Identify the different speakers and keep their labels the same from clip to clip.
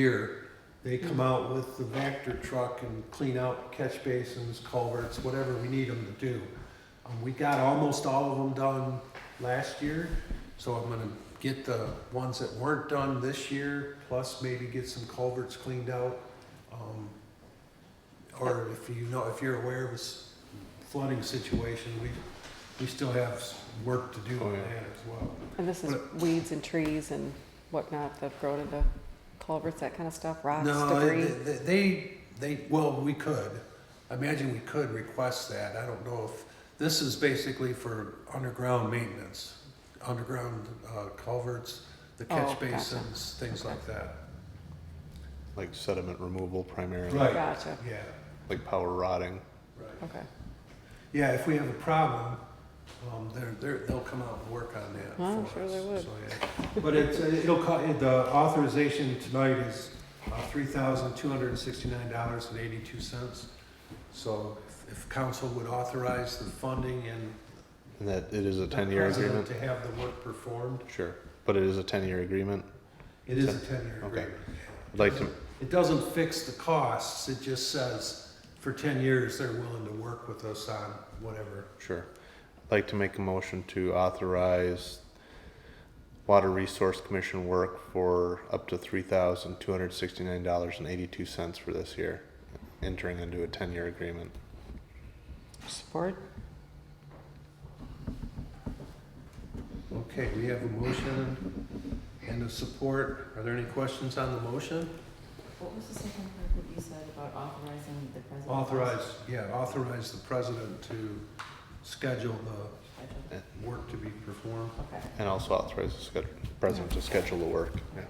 Speaker 1: year, they come out with the Vector truck and clean out catch basins, culverts, whatever we need them to do. Um, we got almost all of them done last year, so I'm gonna get the ones that weren't done this year, plus maybe get some culverts cleaned out. Um, or if you know, if you're aware of a s- flooding situation, we, we still have s- work to do on
Speaker 2: Oh, yeah.
Speaker 1: that as well.
Speaker 3: And this is weeds and trees and whatnot that grown into culverts, that kind of stuff, rocks,
Speaker 1: No, they-
Speaker 3: debris.
Speaker 1: they, they, they, well, we could. I imagine we could request that. I don't know if, this is basically for underground maintenance, underground uh, culverts, the
Speaker 3: Oh,
Speaker 1: catch
Speaker 3: gotcha.
Speaker 1: basins, things like that.
Speaker 2: like sediment removal primarily,
Speaker 1: Right.
Speaker 3: Gotcha,
Speaker 1: Yeah,
Speaker 2: like power rotting.
Speaker 1: right.
Speaker 3: okay.
Speaker 1: Yeah, if we have a problem, um, they're, they're, they'll come out and work on that
Speaker 3: Oh,
Speaker 1: for
Speaker 3: sure
Speaker 1: us.
Speaker 3: they would.
Speaker 1: So, yeah. But it's, uh, it'll, co- the authorization tonight is uh, three thousand two hundred and sixty-nine dollars and eighty-two cents. So if- if council would authorize the funding and.
Speaker 2: And that it is a
Speaker 1: the
Speaker 2: ten-year
Speaker 1: president
Speaker 2: agreement.
Speaker 1: To have the work performed,
Speaker 2: Sure, but it is a ten-year agreement.
Speaker 1: it is a ten-year
Speaker 2: Okay.
Speaker 1: agreement.
Speaker 2: I'd like to,
Speaker 1: It doesn't fix the costs, it just says for ten years, they're willing to work with us on whatever.
Speaker 2: sure, I'd like to make a motion to authorize Water Resource Commission work for up to three thousand two hundred sixty-nine dollars and eighty-two cents for this year, entering into a ten-year agreement.
Speaker 3: Support?
Speaker 1: Okay, we have a motion and a support. Are there any questions on the motion?
Speaker 4: What was the second part that you said about authorizing the president?
Speaker 1: Authorize, yeah, authorize the president to schedule the
Speaker 4: Schedule?
Speaker 1: work to be performed.
Speaker 4: Okay.
Speaker 2: And also authorize the sched- president to schedule the work. Yeah.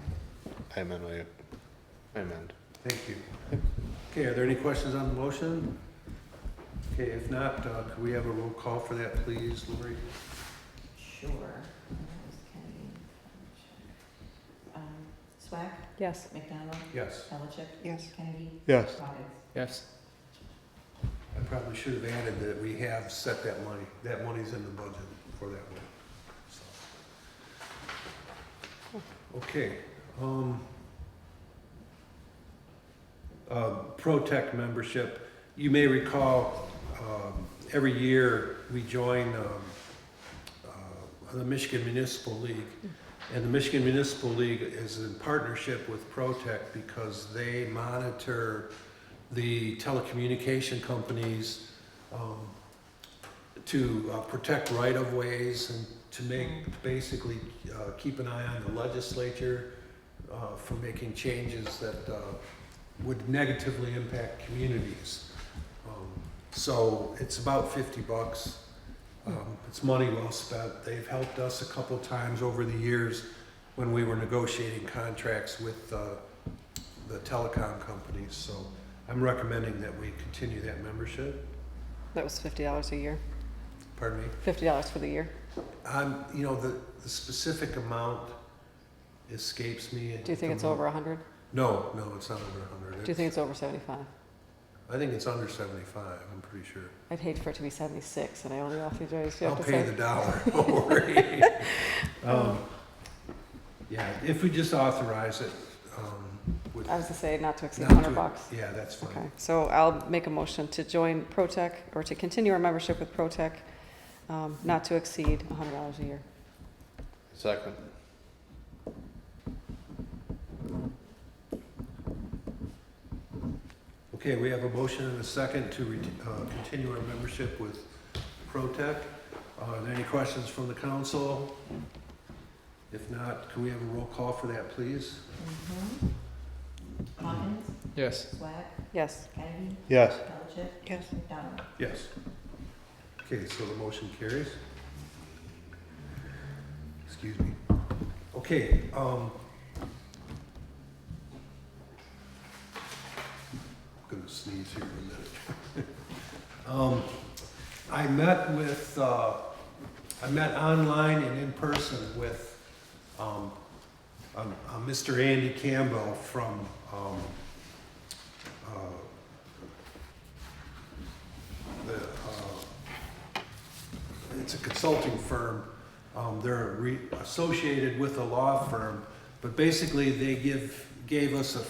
Speaker 2: I amend my, I amend.
Speaker 1: Thank you. Okay, are there any questions on the motion? Okay, if not, uh, could we have a roll call for that, please, Lori?
Speaker 4: Sure. That was Kennedy. Um, Swack,
Speaker 3: Yes.
Speaker 4: McDonald,
Speaker 1: Yes.
Speaker 4: Pelichick,
Speaker 3: Yes.
Speaker 4: Kennedy,
Speaker 2: Yes.
Speaker 4: Hawkins.
Speaker 5: Yes.
Speaker 1: I probably should have added that we have set that money, that money's in the budget for that one, so. Okay, um, uh, ProTech membership, you may recall, um, every year we join, um, uh, the Michigan Municipal League. And the Michigan Municipal League is in partnership with ProTech because they monitor the telecommunication companies um, to uh, protect right-of-ways and to make, basically, uh, keep an eye on the legislature uh, for making changes that uh, would negatively impact communities. Um, So it's about fifty bucks. Um, It's money well spent. They've helped us a couple times over the years when we were negotiating contracts with uh, the telecom companies, so I'm recommending that we continue that membership.
Speaker 3: That was fifty dollars a year,
Speaker 1: Pardon me?
Speaker 3: fifty dollars for the year.
Speaker 1: Um, you know, the, the specific amount escapes me.
Speaker 3: Do you think it's over a hundred?
Speaker 1: No, no, it's not over a hundred.
Speaker 3: Do you think it's over seventy-five?
Speaker 1: I think it's under seventy-five, I'm pretty sure.
Speaker 3: I'd hate for it to be seventy-six and I only offered you, you
Speaker 1: I'll
Speaker 3: have to
Speaker 1: pay
Speaker 3: say.
Speaker 1: the dollar, don't worry. Um, Yeah, if we just authorize it, um, would.
Speaker 3: I was gonna say not to exceed
Speaker 1: not to-
Speaker 3: hundred bucks.
Speaker 1: Yeah, that's
Speaker 3: Okay,
Speaker 1: fine.
Speaker 3: so I'll make a motion to join ProTech or to continue our membership with ProTech, um, not to exceed hundred dollars a year.
Speaker 2: Second.
Speaker 1: Okay, we have a motion and a second to re- uh, continue our membership with ProTech. Uh, Are there any questions from the council? If not, can we have a roll call for that, please?
Speaker 4: Mhm. Mm-hmm. Hawkins,
Speaker 5: Yes.
Speaker 4: Swack,
Speaker 3: Yes.
Speaker 4: Kennedy,
Speaker 2: Yes.
Speaker 4: Pelichick.
Speaker 3: Yes.
Speaker 4: McDonald.
Speaker 1: Yes. Okay, so the motion carries. Excuse me. Okay, um. I'm gonna sneeze here in a minute. Um, I met with, uh, I met online and in person with, um, um, uh, Mr. Andy Campbell from, um, uh, the, uh, it's a consulting firm. Um, They're re- associated with a law firm, but basically they give, gave us a